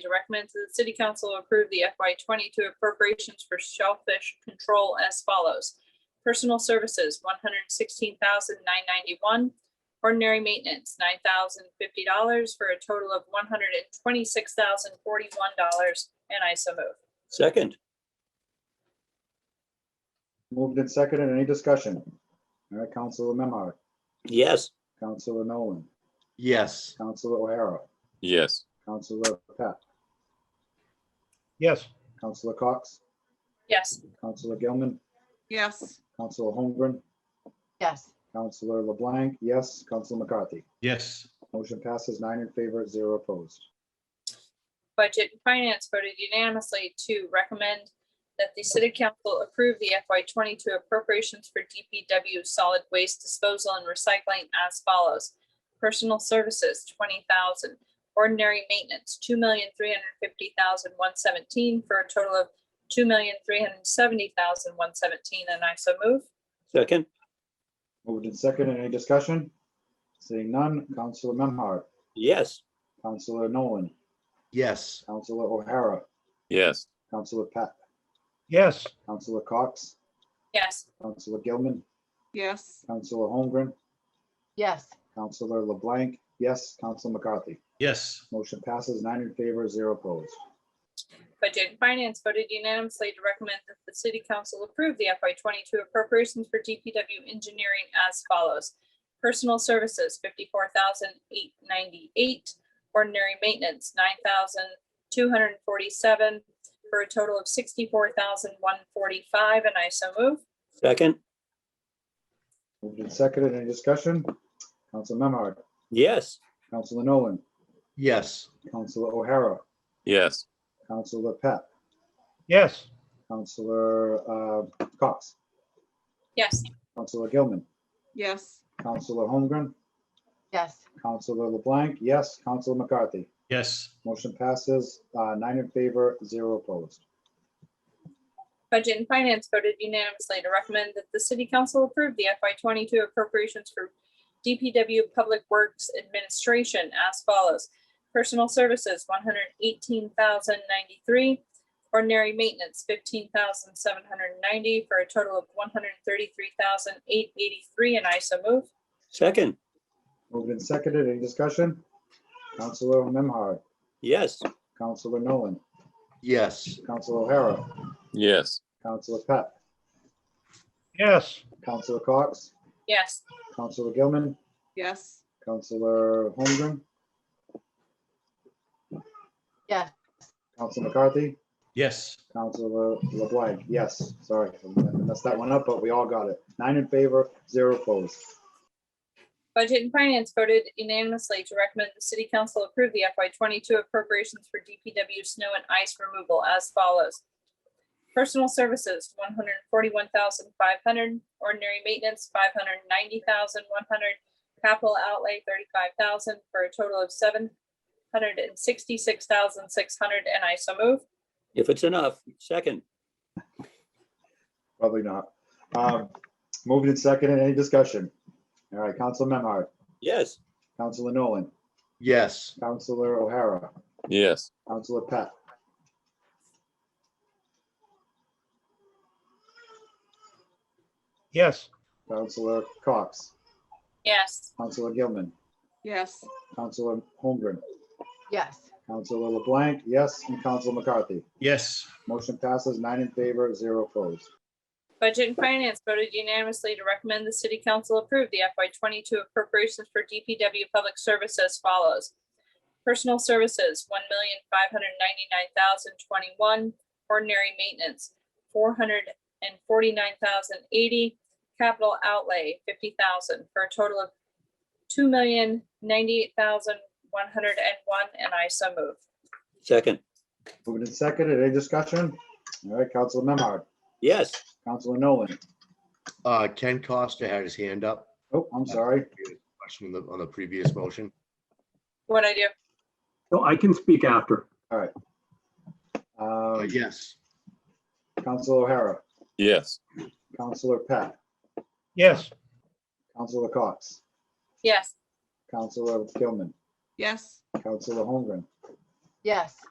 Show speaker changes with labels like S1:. S1: to recommend to the city council approve the FY twenty-two appropriations for shellfish control as follows. Personal services, one hundred sixteen thousand nine ninety-one. Ordinary maintenance, nine thousand fifty dollars for a total of one hundred and twenty-six thousand forty-one dollars, and I so move.
S2: Second,
S3: Moved and seconded. Any discussion? All right, Counselor Memard,
S2: yes.
S3: Counselor Nolan,
S4: yes,
S3: Counselor O'Hara,
S5: yes,
S3: Counselor Pat,
S6: yes,
S3: Counselor Cox,
S1: Yes,
S3: Counselor Gilman,
S7: yes,
S3: Counselor Holmgren,
S8: yes,
S3: Counselor LeBlanc, yes, Counselor McCarthy.
S6: yes,
S3: Motion passes nine in favor, zero opposed.
S1: Budget and Finance voted unanimously to recommend that the city council approve the FY twenty-two appropriations for DPW solid waste disposal and recycling as follows. Personal services, twenty thousand, ordinary maintenance, two million, three hundred fifty thousand, one seventeen, for a total of two million, three hundred seventy thousand, one seventeen, and I so move.
S2: Second,
S3: Moved and seconded. Any discussion? Seeing none, Counselor Memard,
S2: yes.
S3: Counselor Nolan,
S4: yes,
S3: Counselor O'Hara,
S5: yes,
S3: Counselor Pat,
S6: yes,
S3: Counselor Cox,
S1: Yes,
S3: Counselor Gilman,
S7: yes,
S3: Counselor Holmgren,
S8: yes,
S3: Counselor LeBlanc, yes, Counselor McCarthy.
S6: yes,
S3: Motion passes nine in favor, zero opposed.
S1: Budget and Finance voted unanimously to recommend that the city council approve the FY twenty-two appropriations for DPW engineering as follows. Personal services, fifty-four thousand eight ninety-eight, ordinary maintenance, nine thousand two hundred and forty-seven, for a total of sixty-four thousand one forty-five, and I so move.
S2: Second,
S3: Moved and seconded. Any discussion? Counselor Memard,
S2: yes.
S3: Counselor Nolan,
S4: yes,
S3: Counselor O'Hara,
S5: yes,
S3: Counselor Pat,
S6: yes,
S3: Counselor uh, Cox,
S1: Yes,
S3: Counselor Gilman,
S7: yes,
S3: Counselor Holmgren,
S8: yes,
S3: Counselor LeBlanc, yes, Counselor McCarthy.
S6: yes,
S3: Motion passes uh, nine in favor, zero opposed.
S1: Budget and Finance voted unanimously to recommend that the city council approve the FY twenty-two appropriations for DPW Public Works Administration as follows. Personal Services, one hundred eighteen thousand ninety-three. Ordinary Maintenance, fifteen thousand seven hundred ninety, for a total of one hundred thirty-three thousand eight eighty-three, and I so move.
S2: Second,
S3: Moved and seconded. Any discussion? Counselor Memhard,
S2: yes.
S3: Counselor Nolan,
S4: yes,
S3: Counselor O'Hara,
S5: yes,
S3: Counselor Pat,
S6: yes,
S3: Counselor Cox,
S1: Yes,
S3: Counselor Gilman,
S7: yes,
S3: Counselor Holmgren,
S8: yes,
S3: Counselor McCarthy,
S6: yes,
S3: Counselor LeBlanc. Yes, sorry, I messed that one up, but we all got it. Nine in favor, zero opposed.
S1: Budget and Finance voted unanimously to recommend the city council approve the FY twenty-two appropriations for DPW snow and ice removal as follows. Personal services, one hundred forty-one thousand five hundred, ordinary maintenance, five hundred ninety thousand one hundred, capital outlay, thirty-five thousand, for a total of seven hundred and sixty-six thousand six hundred, and I so move.
S2: If it's enough, second,
S3: Probably not. Um, Moved and seconded. Any discussion? All right, Counselor Memhard,
S2: yes.
S3: Counselor Nolan,
S4: yes,
S3: Counselor O'Hara,
S5: yes,
S3: Counselor Pat,
S6: yes,
S3: Counselor Cox,
S1: Yes,
S3: Counselor Gilman,
S7: yes,
S3: Counselor Holmgren,
S8: yes,
S3: Counselor LeBlanc, yes, and Counselor McCarthy.
S6: yes,
S3: Motion passes nine in favor, zero opposed.
S1: Budget and Finance voted unanimously to recommend the city council approve the FY twenty-two appropriations for DPW Public Service as follows. Personal Services, one million five hundred ninety-nine thousand twenty-one, Ordinary Maintenance, four hundred and forty-nine thousand eighty, Capital Outlay, fifty thousand, for a total of two million ninety-eight thousand one hundred and one, and I so move.
S2: Second,
S3: Moved and seconded. Any discussion? All right, Counselor Memhard,
S2: yes.
S3: Counselor Nolan.
S4: uh, Ken Costa had his hand up.
S3: Oh, I'm sorry.
S4: Question on the, on the previous motion,
S1: What I do?
S9: No, I can speak after.
S4: Uh,
S3: Uh,
S4: yes,
S3: Counselor O'Hara,
S5: yes,
S3: Counselor Pat,
S6: yes,
S3: Counselor Cox,
S1: Yes,
S3: Counselor Gilman,
S7: yes,
S3: Counselor Holmgren,
S8: yes,